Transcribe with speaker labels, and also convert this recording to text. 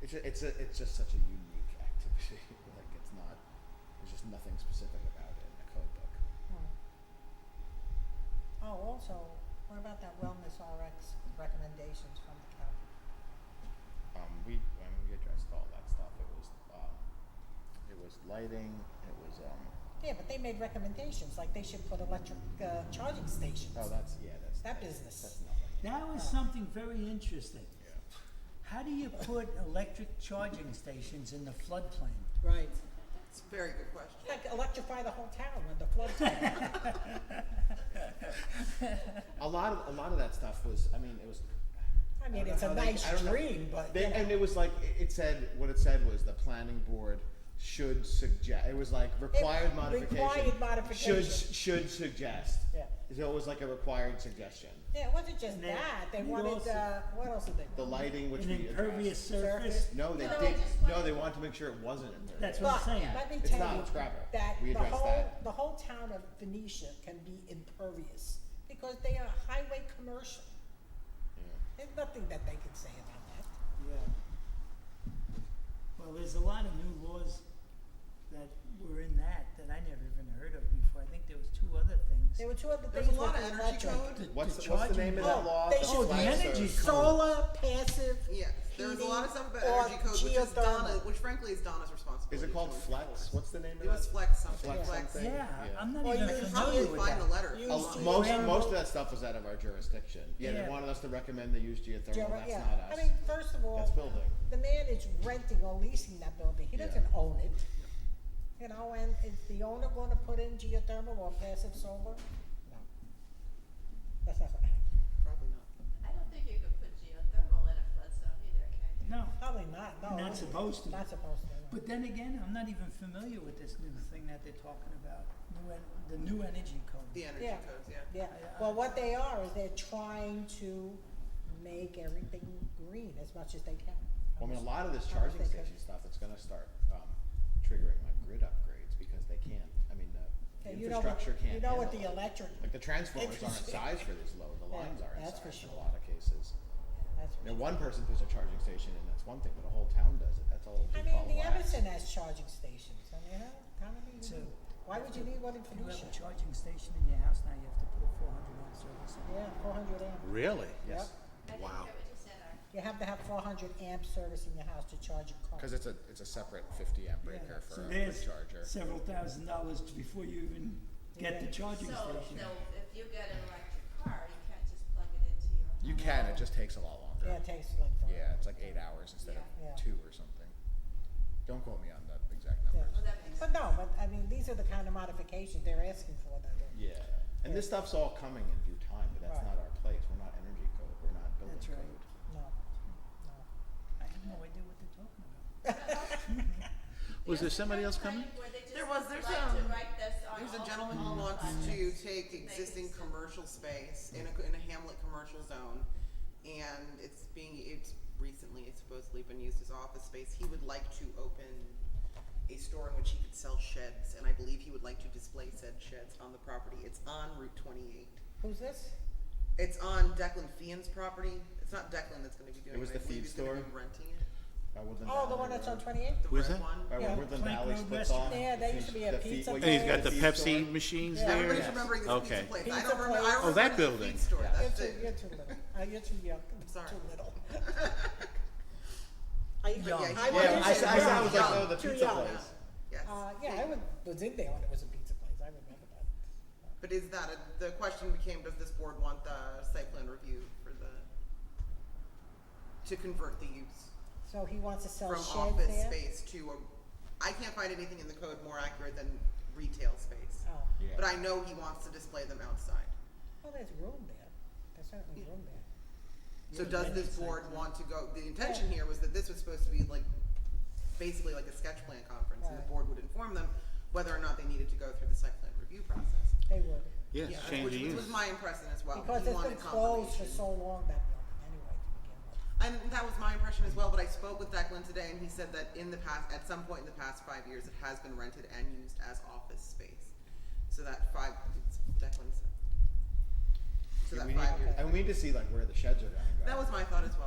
Speaker 1: It's a, it's a, it's just such a unique activity. like it's not. There's just nothing specific about it in a code book.
Speaker 2: Hmm. Oh, also, what about that wellness RX recommendations from the county?
Speaker 1: Um, we I mean, we addressed all that stuff. It was um, it was lighting. It was um.
Speaker 2: Yeah, but they made recommendations, like they should put electric, uh, charging stations.
Speaker 1: Oh, that's yeah. That's
Speaker 2: That
Speaker 1: that's-
Speaker 2: business.
Speaker 1: That's nothing.
Speaker 3: That was something very interesting.
Speaker 1: Yeah.
Speaker 3: How do you put electric charging stations in the floodplain?
Speaker 2: Right.
Speaker 4: It's a very good question.
Speaker 2: Like electrify the whole town when the flood comes.
Speaker 1: A lot of a lot of that stuff was. I mean, it was.
Speaker 2: I mean,
Speaker 1: don't
Speaker 2: it's
Speaker 1: know
Speaker 2: a
Speaker 1: how they-
Speaker 2: nice
Speaker 1: I don't know.
Speaker 2: dream, but,
Speaker 1: They,
Speaker 2: you know.
Speaker 1: and it was like it- it said what it said was the planning board should suggest. It was like required modification.
Speaker 2: required modification.
Speaker 1: Should should suggest.
Speaker 2: Yeah.
Speaker 1: So it was like a required suggestion.
Speaker 2: Yeah, it wasn't just
Speaker 3: And they-
Speaker 2: that, they
Speaker 3: you
Speaker 2: wanted,
Speaker 3: also-
Speaker 2: uh, what else did they
Speaker 1: The
Speaker 2: want?
Speaker 1: lighting, which
Speaker 3: An
Speaker 1: we
Speaker 3: impervious
Speaker 1: addressed.
Speaker 3: surface?
Speaker 2: Surface.
Speaker 1: No, they
Speaker 4: No, I
Speaker 1: did.
Speaker 4: just
Speaker 1: No,
Speaker 4: wanted-
Speaker 1: they wanted to make sure it wasn't impervious.
Speaker 3: That's what I'm
Speaker 2: But,
Speaker 3: saying.
Speaker 2: let me
Speaker 1: It's
Speaker 2: tell
Speaker 1: not,
Speaker 2: you,
Speaker 1: it's gravel.
Speaker 2: that
Speaker 1: We
Speaker 2: the
Speaker 1: addressed
Speaker 2: whole,
Speaker 1: that.
Speaker 2: the whole town of Venetia can be impervious, because they are highway commercial. There's nothing that they can say about that.
Speaker 3: Yeah. Well, there's a lot of new laws that were in that that I never even heard of before. I think there was two other
Speaker 2: There
Speaker 3: things.
Speaker 2: were two other things
Speaker 4: There's a lot of
Speaker 2: with
Speaker 4: energy
Speaker 2: electric.
Speaker 4: code.
Speaker 1: What's
Speaker 3: to
Speaker 1: the, what's the
Speaker 3: charging-
Speaker 1: name of that
Speaker 2: Oh,
Speaker 1: law?
Speaker 2: they should
Speaker 3: Oh, the
Speaker 1: Flag
Speaker 3: energy
Speaker 1: service.
Speaker 3: code.
Speaker 2: Solar passive
Speaker 4: Yeah, there was a lot of stuff about
Speaker 2: heating or
Speaker 4: energy code, which is Donna,
Speaker 2: geothermal.
Speaker 4: which frankly is Donna's responsibility.
Speaker 1: Is it called
Speaker 4: to
Speaker 1: flex?
Speaker 4: enforce.
Speaker 1: What's the name of
Speaker 4: It was
Speaker 1: that?
Speaker 4: flex something,
Speaker 1: Flex
Speaker 4: flex.
Speaker 1: something.
Speaker 3: Yeah,
Speaker 1: Yeah.
Speaker 3: I'm not
Speaker 2: Well,
Speaker 3: even
Speaker 2: you
Speaker 4: You can
Speaker 3: familiar
Speaker 4: probably
Speaker 3: with
Speaker 4: find
Speaker 3: that.
Speaker 4: a letter.
Speaker 2: You
Speaker 1: A-
Speaker 2: Used to
Speaker 1: Uh, most
Speaker 3: geothermal.
Speaker 1: most of that stuff was out of our jurisdiction. Yeah,
Speaker 3: Yeah.
Speaker 1: they wanted us to recommend they use geothermal.
Speaker 2: Geo-
Speaker 1: That's
Speaker 2: yeah.
Speaker 1: not us.
Speaker 2: I mean, first of all,
Speaker 1: That's building.
Speaker 2: the man is renting or leasing that building, he
Speaker 1: Yeah.
Speaker 2: doesn't own it. You know, and is the owner gonna put in geothermal or passive solar? No. That's not,
Speaker 4: Probably not.
Speaker 5: I don't think you could put geothermal in a flood zone either, can you?
Speaker 3: No,
Speaker 2: probably not, no.
Speaker 3: not supposed to.
Speaker 2: Not supposed to, no.
Speaker 3: But then again, I'm not even familiar with this new thing that they're talking about, new en- the new energy code.
Speaker 4: The energy
Speaker 2: Yeah.
Speaker 4: codes, yeah.
Speaker 2: Yeah, well, what they are is they're trying to make everything green as much as they can.
Speaker 1: Well, I mean, a lot of this
Speaker 2: I don't
Speaker 1: charging
Speaker 2: think I-
Speaker 1: station stuff, it's gonna start, um, triggering my grid upgrades because they can't, I mean, the
Speaker 2: Yeah, you know what-
Speaker 1: infrastructure
Speaker 2: You
Speaker 1: can't
Speaker 2: know
Speaker 1: handle
Speaker 2: what the
Speaker 1: it.
Speaker 2: electric,
Speaker 1: Like the transformers aren't
Speaker 2: Interesting.
Speaker 1: sized for this load, the
Speaker 2: Yeah,
Speaker 1: lines aren't
Speaker 2: that's for
Speaker 1: sized in a
Speaker 2: sure.
Speaker 1: lot of cases.
Speaker 2: that's
Speaker 1: You know, one person puts a charging station in, that's one thing, but a whole town does it, that's
Speaker 2: I
Speaker 1: all it'll do,
Speaker 2: mean,
Speaker 1: Paul
Speaker 2: the
Speaker 1: Wax.
Speaker 2: Everson has charging stations, I mean, how, how many do
Speaker 3: So-
Speaker 2: you need? Why would you need one in
Speaker 3: If you have
Speaker 2: Felicia?
Speaker 3: a charging station in your house now, you have to put a four hundred amp service in.
Speaker 2: Yeah, four hundred amp,
Speaker 6: Really?
Speaker 1: Yes,
Speaker 5: I didn't hear what you said, Art.
Speaker 2: you have to have four hundred amp service in your house to charge your car.
Speaker 1: cause it's a, it's a separate fifty amp breaker
Speaker 3: Yeah,
Speaker 1: for a grid
Speaker 3: So
Speaker 1: charger.
Speaker 3: there's several thousand dollars before you even get the
Speaker 2: Yeah.
Speaker 3: charging
Speaker 5: So,
Speaker 3: station.
Speaker 5: so if you get an electric car, you can't just plug it into your.
Speaker 1: You can, it just takes a lot
Speaker 2: Yeah,
Speaker 1: longer.
Speaker 2: it takes like four.
Speaker 1: Yeah, it's like eight hours instead
Speaker 2: Yeah. Yeah.
Speaker 1: of two or something. Don't quote me on the exact
Speaker 2: Yeah.
Speaker 1: numbers.
Speaker 5: Well, that makes
Speaker 2: But no, but I mean, these are the kind of modifications they're asking for, though. they're-
Speaker 1: Yeah, and this stuff's all coming in due time, but that's
Speaker 2: Right.
Speaker 1: not our place, we're not energy code, we're not building
Speaker 3: That's
Speaker 1: code.
Speaker 3: right.
Speaker 2: No, no.
Speaker 3: I have no idea what they're talking about.
Speaker 6: Was there somebody else coming?
Speaker 5: Where they just
Speaker 4: There was-
Speaker 5: would
Speaker 4: there's,
Speaker 5: like to
Speaker 4: um,
Speaker 5: write this on
Speaker 4: There's
Speaker 5: all
Speaker 4: a gentleman
Speaker 5: all
Speaker 4: who wants
Speaker 5: projects.
Speaker 4: to take existing commercial space in a, in a Hamlet commercial zone, and it's being, it's recently, it's supposedly been used as office space. He would like to open a store in which he could sell sheds, and I believe he would like to display said sheds on the property. It's on Route twenty-eight.
Speaker 2: Who's this?
Speaker 4: It's on Declan Fian's property. It's not Declan that's gonna be doing it.
Speaker 1: It was
Speaker 4: I
Speaker 1: the
Speaker 4: believe
Speaker 1: feed
Speaker 4: he's gonna be
Speaker 1: store?
Speaker 4: Renting it,
Speaker 1: By Woodland
Speaker 2: Oh, the
Speaker 1: Valley
Speaker 2: one that's on
Speaker 1: Road.
Speaker 2: twenty-eight?
Speaker 4: the
Speaker 6: Where's
Speaker 4: red
Speaker 6: that?
Speaker 4: one.
Speaker 1: By where
Speaker 2: Yeah.
Speaker 1: Woodland
Speaker 3: Plank
Speaker 1: Valley
Speaker 3: Road
Speaker 1: splits
Speaker 3: restaurant.
Speaker 2: Yeah,
Speaker 1: off.
Speaker 2: there
Speaker 1: the
Speaker 2: used to
Speaker 1: feed-
Speaker 2: be a
Speaker 1: the feed-
Speaker 2: pizza
Speaker 1: what
Speaker 6: And he's
Speaker 1: used to
Speaker 6: got
Speaker 1: be
Speaker 6: the
Speaker 1: a feed store.
Speaker 6: Pepsi machines
Speaker 2: Yeah.
Speaker 6: there?
Speaker 4: Everybody's remembering this
Speaker 6: Okay.
Speaker 4: pizza place. I
Speaker 2: Pizza
Speaker 4: don't remember, I
Speaker 2: place.
Speaker 6: Oh,
Speaker 4: remember the
Speaker 6: that building.
Speaker 4: feed store.
Speaker 2: You're
Speaker 4: That's
Speaker 2: too,
Speaker 4: it.
Speaker 2: you're too little. Uh, you're too young.
Speaker 4: Sorry.
Speaker 2: Too little. I,
Speaker 3: Yeah,
Speaker 2: I
Speaker 4: yeah,
Speaker 2: went
Speaker 1: Yeah,
Speaker 2: into
Speaker 1: I,
Speaker 2: the
Speaker 1: saw- I saw, I
Speaker 2: young.
Speaker 1: was like,
Speaker 4: Young.
Speaker 1: oh, the
Speaker 2: Too
Speaker 1: pizza
Speaker 2: young.
Speaker 1: place.
Speaker 4: Yes.
Speaker 2: Uh, yeah, I was, was in there when it was a pizza place. I remember that.
Speaker 4: But is that, a- the question became, does this board want the site plan review for the, to convert the use
Speaker 2: So he wants to sell
Speaker 4: from
Speaker 2: sheds
Speaker 4: office
Speaker 2: there?
Speaker 4: space to a, I can't find anything in the code more accurate than retail space.
Speaker 2: Oh,
Speaker 1: Yeah.
Speaker 4: But I know he wants to display them outside.
Speaker 2: well, there's room there. There's certainly room there.
Speaker 4: So
Speaker 3: Yeah,
Speaker 4: does
Speaker 3: that's
Speaker 4: this
Speaker 3: the
Speaker 4: board
Speaker 3: site plan.
Speaker 4: want to go, the intention here was that this was supposed to be like, basically like a sketch plan conference, and the
Speaker 2: Right.
Speaker 4: board would inform them whether or not they needed to go through the site plan review process.
Speaker 2: They would.
Speaker 6: Yes,
Speaker 4: Yeah,
Speaker 6: change
Speaker 4: which-
Speaker 6: the
Speaker 4: Which
Speaker 6: use.
Speaker 4: was my impression as well.
Speaker 2: Because it's
Speaker 4: He
Speaker 2: been
Speaker 4: wanted
Speaker 2: closed for
Speaker 4: confirmation.
Speaker 2: so long, that building, anyway, to begin with.
Speaker 4: And that was my impression as well, but I spoke with Declan today and he said that in the past, at some point in the past five years, it has been rented and used as office space. So that five, it's Declan said. So
Speaker 1: Yeah,
Speaker 4: that
Speaker 1: we
Speaker 4: five
Speaker 1: need-
Speaker 4: years,
Speaker 1: And we need to see like where the sheds are gonna go.
Speaker 4: that was my thought as well.